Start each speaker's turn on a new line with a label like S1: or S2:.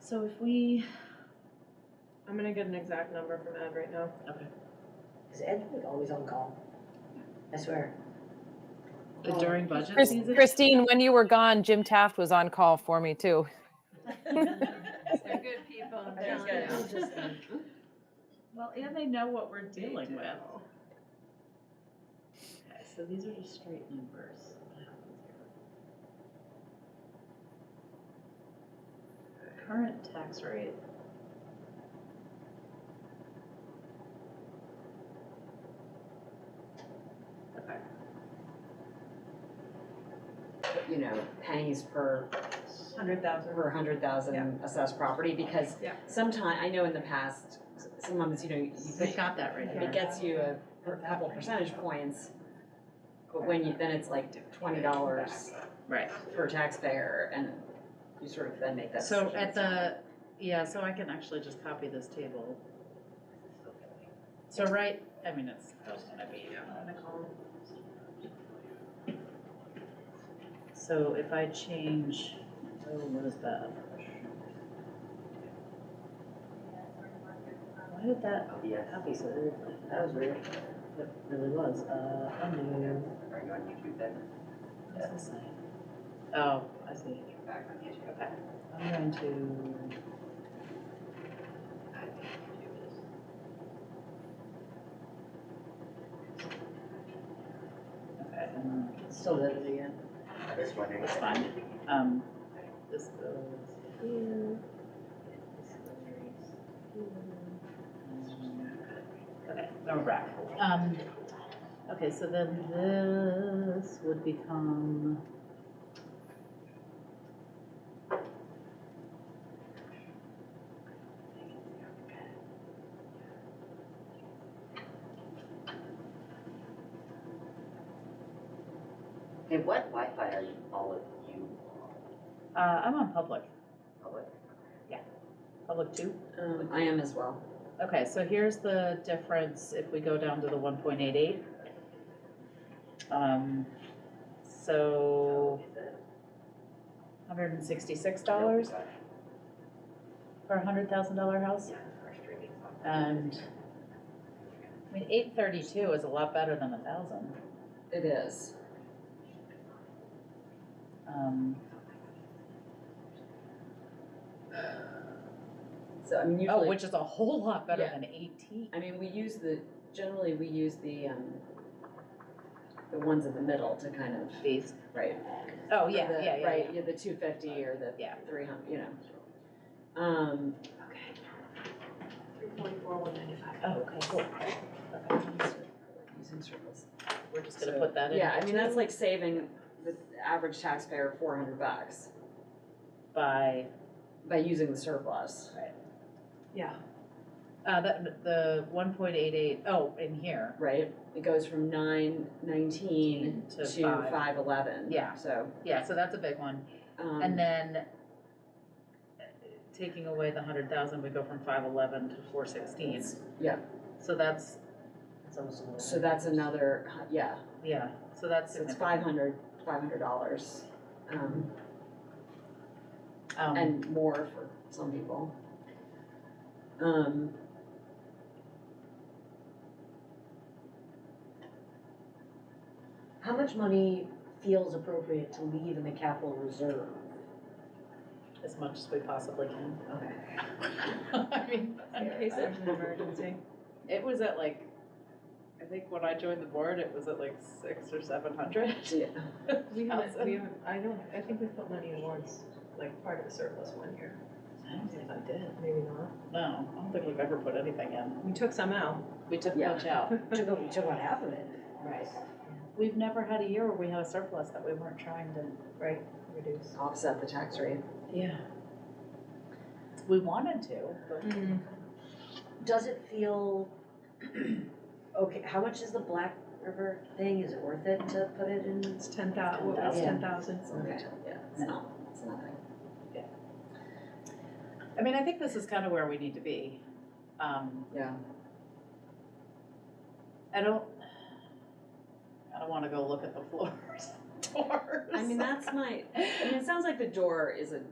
S1: So if we,
S2: I'm gonna get an exact number from Ed right now.
S3: Is Edward always on call? I swear.
S1: Oh.
S4: During budget?
S5: Chris-
S1: Means it-
S5: Christine, when you were gone, Jim Taft was on call for me too.
S2: They're good people, I'm
S3: I just
S2: telling
S3: gotta-
S2: you.
S3: it's just like-
S1: well, and they know what we're dealing
S4: Dealing
S1: with.
S4: with.
S1: Okay, so these are just straight numbers. Current tax rate. Okay.
S3: you know, pennies per,
S2: Hundred thousand.
S3: per hundred thousand assessed property, because
S2: Yeah.
S3: sometime, I know in the past, s- sometimes, you know, you
S4: They
S3: pick,
S4: got that right
S3: it
S4: there.
S3: gets you a per- couple percentage points, but when you, then it's like twenty dollars
S4: Right.
S3: per taxpayer, and you sort of then make that decision.
S4: So at the, yeah, so I can actually just copy this table. So right, I mean, it's, it's gonna be on the column. So if I change, oh, what is that? Why did that, oh, yeah, copy, so it- that was weird. It really was, uh, I knew.
S6: Are you on YouTube then?
S4: What's this sign? Oh, I see.
S6: Back on YouTube.
S4: Okay, I'm going to,
S6: I think YouTube is.
S4: okay, um,
S3: Still does it again.
S6: I just wondering.
S4: it's fine. Um, this goes here. This goes here. Okay, now we're back. Um, okay, so then this would become.
S6: Hey, what Wi-Fi are you, all of you
S4: Uh, I'm on public,
S6: on? Public?
S4: public two.
S3: Um, I am as well.
S4: Okay, so here's the difference if we go down to the one point eight eight. Um, so hundred and sixty-six dollars for a hundred thousand dollar house. And, I mean, eight thirty-two is a lot better than a thousand.
S3: It is.
S4: Um,
S3: So, I mean,
S4: oh,
S3: usually,
S4: which is a whole lot better
S3: Yeah.
S4: than eighteen.
S3: I mean, we use the, generally, we use the, um, the ones in the middle to kind of,
S4: These,
S3: right?
S4: oh, yeah,
S3: the-
S4: yeah, yeah,
S3: Right,
S4: yeah.
S3: yeah, the two fifty or the
S4: Yeah.
S3: three hundred, you know. Um,
S2: Three forty-four, one ninety-five.
S4: Oh, okay, cool. Okay,
S3: using circles.
S4: We're just gonna
S3: So,
S4: put that in.
S3: Yeah,
S4: here
S3: I mean,
S4: too.
S3: that's like saving the average taxpayer four hundred bucks
S4: By
S3: by using the surplus.
S2: Yeah.
S4: Uh, that, the one point eight eight, oh, in here,
S3: Right, it goes from nine nineteen
S4: To
S3: to
S4: five.
S3: five eleven.
S4: Yeah.
S3: So,
S4: yeah, so that's a big one,
S3: um.
S2: Mm.
S4: and then uh, taking away the hundred thousand, we go from five eleven to four sixteen.
S3: Yeah.
S4: So that's,
S3: So that's another, hu- yeah,
S4: yeah, so that's.
S3: so it's
S4: significant.
S3: five hundred, five hundred dollars, um,
S4: Um,
S3: and more for some people. Um,
S7: How much money feels appropriate to leave in the capital reserve?
S4: as much as we possibly can.
S3: okay,
S4: I mean,
S2: In case there's an emergency. It was at like, I think when I joined the board, it was at like six or seven hundred.
S3: so yeah,
S2: We haven't,
S4: Thousand.
S2: we haven't, I don't, I think we put money in warrants, like part of the surplus one year.
S4: I don't think I did,
S2: Maybe not.
S4: no, I don't think we've ever put anything in,
S2: We took some out.
S4: we took
S3: Yeah.
S4: much out.
S7: Took, a- took about half of it.
S4: Right. We've never had a year where we had a surplus that we weren't trying to
S2: Right, reduce.
S3: offset the tax rate.
S4: Yeah. We wanted to, but
S2: Mm-hmm.
S7: Does it feel, okay, how much is the Black River thing? Is it worth it to put it in?
S2: It's ten thou, what was
S3: Yeah.
S2: ten thousand?
S3: Okay, yeah, it's not, it's nothing.
S4: I mean, I think this is kind of where we need to be. Um,
S3: Yeah.
S4: I don't, I don't want to go look at the floors, doors.
S3: I mean, that's my, I mean, it sounds like the door is a